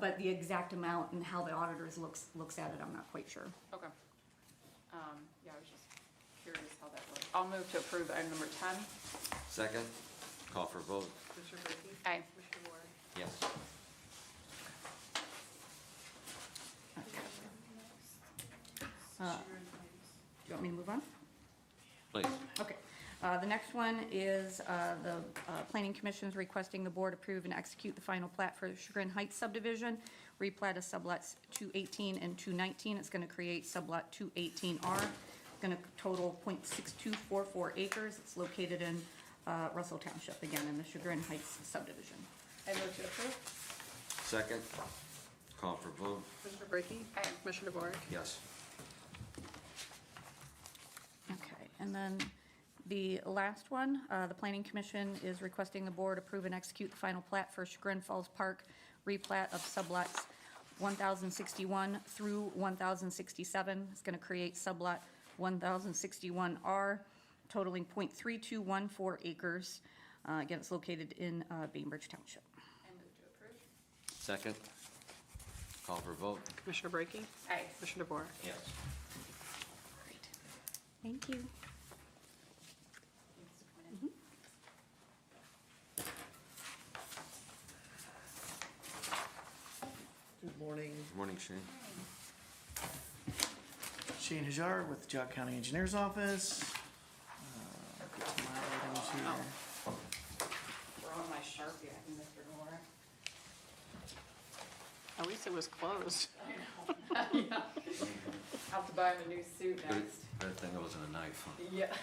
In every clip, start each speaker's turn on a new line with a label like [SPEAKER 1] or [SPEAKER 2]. [SPEAKER 1] But the exact amount and how the auditors looks, looks at it, I'm not quite sure.
[SPEAKER 2] Okay. Um, yeah, I was just curious how that works. I'll move to approve item number ten.
[SPEAKER 3] Second, call for vote,
[SPEAKER 4] Commissioner Brackey?
[SPEAKER 2] Aye.
[SPEAKER 4] Commissioner Warren?
[SPEAKER 3] yes.
[SPEAKER 1] Uh,
[SPEAKER 4] Sharon Davis.
[SPEAKER 1] Do you want me to move on?
[SPEAKER 3] Please,
[SPEAKER 1] Okay. Uh, The next one is uh, the uh, Planning Commission's requesting the board approve and execute the final plat for Chagrin Heights subdivision, replat of sublots 218 and 219. It's going to create sublot 218R. It's going to total .6244 acres. It's located in uh, Russell Township, again, in the Chagrin Heights subdivision.
[SPEAKER 4] I move to approve.
[SPEAKER 3] second, call for vote,
[SPEAKER 4] Commissioner Brackey?
[SPEAKER 2] Aye.
[SPEAKER 4] Commissioner Warren?
[SPEAKER 3] yes.
[SPEAKER 1] Okay, and then the last one, uh, the Planning Commission is requesting the board approve and execute the final plat for Chagrin Falls Park, replat of sublots 1,061 through 1,067. It's going to create sublot 1,061R totaling .3214 acres. Uh, Again, it's located in uh, Bainbridge Township.
[SPEAKER 2] I move to approve.
[SPEAKER 3] Second, call for vote,
[SPEAKER 4] Commissioner Brackey?
[SPEAKER 2] Aye.
[SPEAKER 4] Commissioner Warren?
[SPEAKER 3] yes.
[SPEAKER 1] Great. Thank you.
[SPEAKER 2] Thanks for coming in.
[SPEAKER 5] Good morning,
[SPEAKER 3] Good morning, Shane.
[SPEAKER 5] Shane Hajar with Jog County Engineers Office. Uh, get to my items here.
[SPEAKER 2] We're on my Sharpie, I think, Mr. Nora.
[SPEAKER 4] At least it was closed.
[SPEAKER 2] I'll have to buy him a new suit
[SPEAKER 3] Good
[SPEAKER 2] next.
[SPEAKER 3] good thing it wasn't a knife. huh?
[SPEAKER 2] Yeah.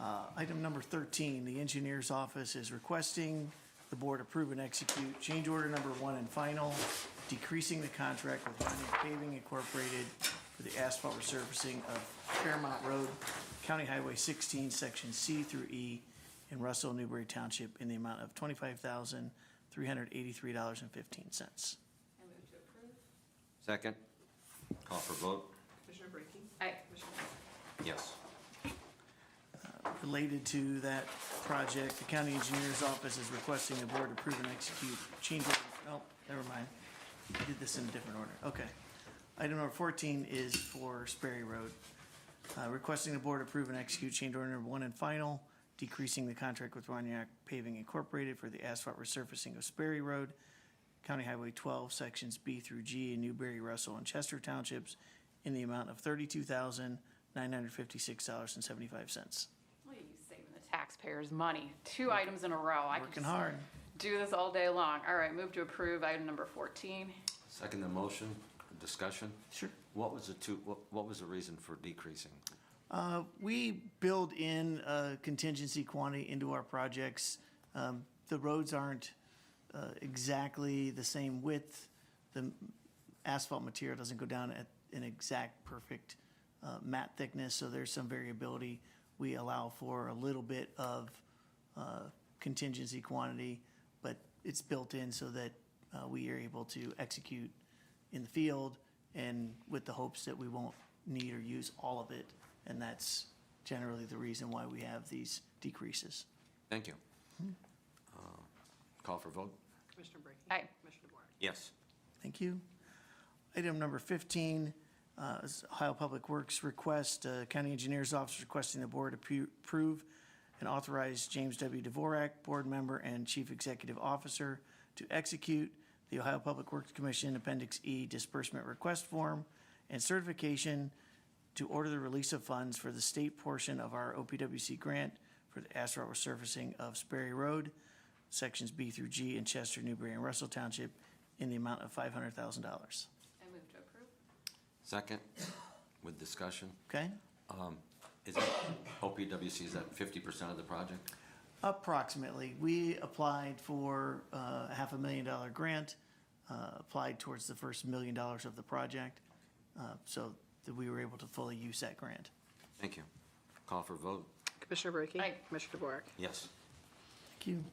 [SPEAKER 5] Uh, Item number 13, the Engineers Office is requesting the board approve and execute change order number one and final, decreasing the contract with Pontiac Paving Incorporated for the asphalt resurfacing of Fairmount Road, County Highway 16, Section C through E, in Russell Newberry Township in the amount of $25,383.15.
[SPEAKER 2] I move to approve.
[SPEAKER 3] Second, call for vote,
[SPEAKER 4] Commissioner Brackey?
[SPEAKER 2] Aye.
[SPEAKER 4] Commissioner Warren?
[SPEAKER 3] yes.
[SPEAKER 5] Related to that project, the county engineer's office is requesting the board approve and execute change order, oh, never mind. I did this in a different order, okay. Item number fourteen is for Sperry Road. Uh, requesting the board approve and execute change order number one and final, decreasing the contract with Roniak Paving Incorporated for the asphalt resurfacing of Sperry Road, County Highway twelve, sections B through G in Newberry, Russell, and Chester Townships in the amount of thirty-two thousand, nine hundred fifty-six dollars and seventy-five cents.
[SPEAKER 2] Look at you saving the taxpayers' money. Two items in a row. I could
[SPEAKER 5] Working
[SPEAKER 2] just
[SPEAKER 5] hard.
[SPEAKER 2] do this all day long. All right, move to approve item number fourteen.
[SPEAKER 3] Second the motion, discussion?
[SPEAKER 5] Sure.
[SPEAKER 3] What was the two, what, what was the reason for decreasing?
[SPEAKER 5] Uh, we build in uh, contingency quantity into our projects. Um, the roads aren't uh, exactly the same width. The asphalt material doesn't go down at an exact perfect uh, mat thickness, so there's some variability. We allow for a little bit of uh, contingency quantity, but it's built in so that uh, we are able to execute in the field and with the hopes that we won't need or use all of it. And that's generally the reason why we have these decreases.
[SPEAKER 3] Thank you. Uh, Call for vote,
[SPEAKER 4] Commissioner Brackey?
[SPEAKER 2] Aye.
[SPEAKER 4] Commissioner Warren?
[SPEAKER 3] yes.
[SPEAKER 5] Thank you. Item number 15 uh, is Ohio Public Works request, uh, County Engineers Office requesting the board appro- approve and authorize James W. Dvorak, Board Member and Chief Executive Officer, to execute the Ohio Public Works Commission Appendix E Disbursement Request Form and certification to order the release of funds for the state portion of our OPWC grant for the asphalt resurfacing of Sperry Road, Sections B through G in Chester, Newberry, and Russell Township in the amount of $500,000.
[SPEAKER 2] I move to approve.
[SPEAKER 3] Second, with discussion,
[SPEAKER 5] Okay?
[SPEAKER 3] is that, OPWC, is that fifty percent of the project?
[SPEAKER 5] Approximately. We applied for uh, a half a million dollar grant, uh, applied towards the first million dollars of the project, uh, so that we were able to fully use that grant.
[SPEAKER 3] Thank you. Call for vote,
[SPEAKER 4] Commissioner Brackey?
[SPEAKER 2] Aye.
[SPEAKER 4] Commissioner Warren?
[SPEAKER 3] yes.
[SPEAKER 5] Thank you.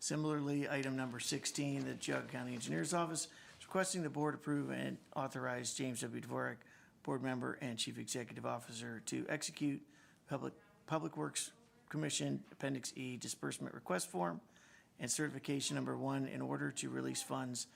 [SPEAKER 5] Similarly, item number 16, the Jug County Engineers Office is requesting the board approve and authorize James W. Dvorak, Board Member and Chief Executive Officer, to execute Public, Public Works Commission Appendix E Disbursement Request Form and Certification Number One in order to release funds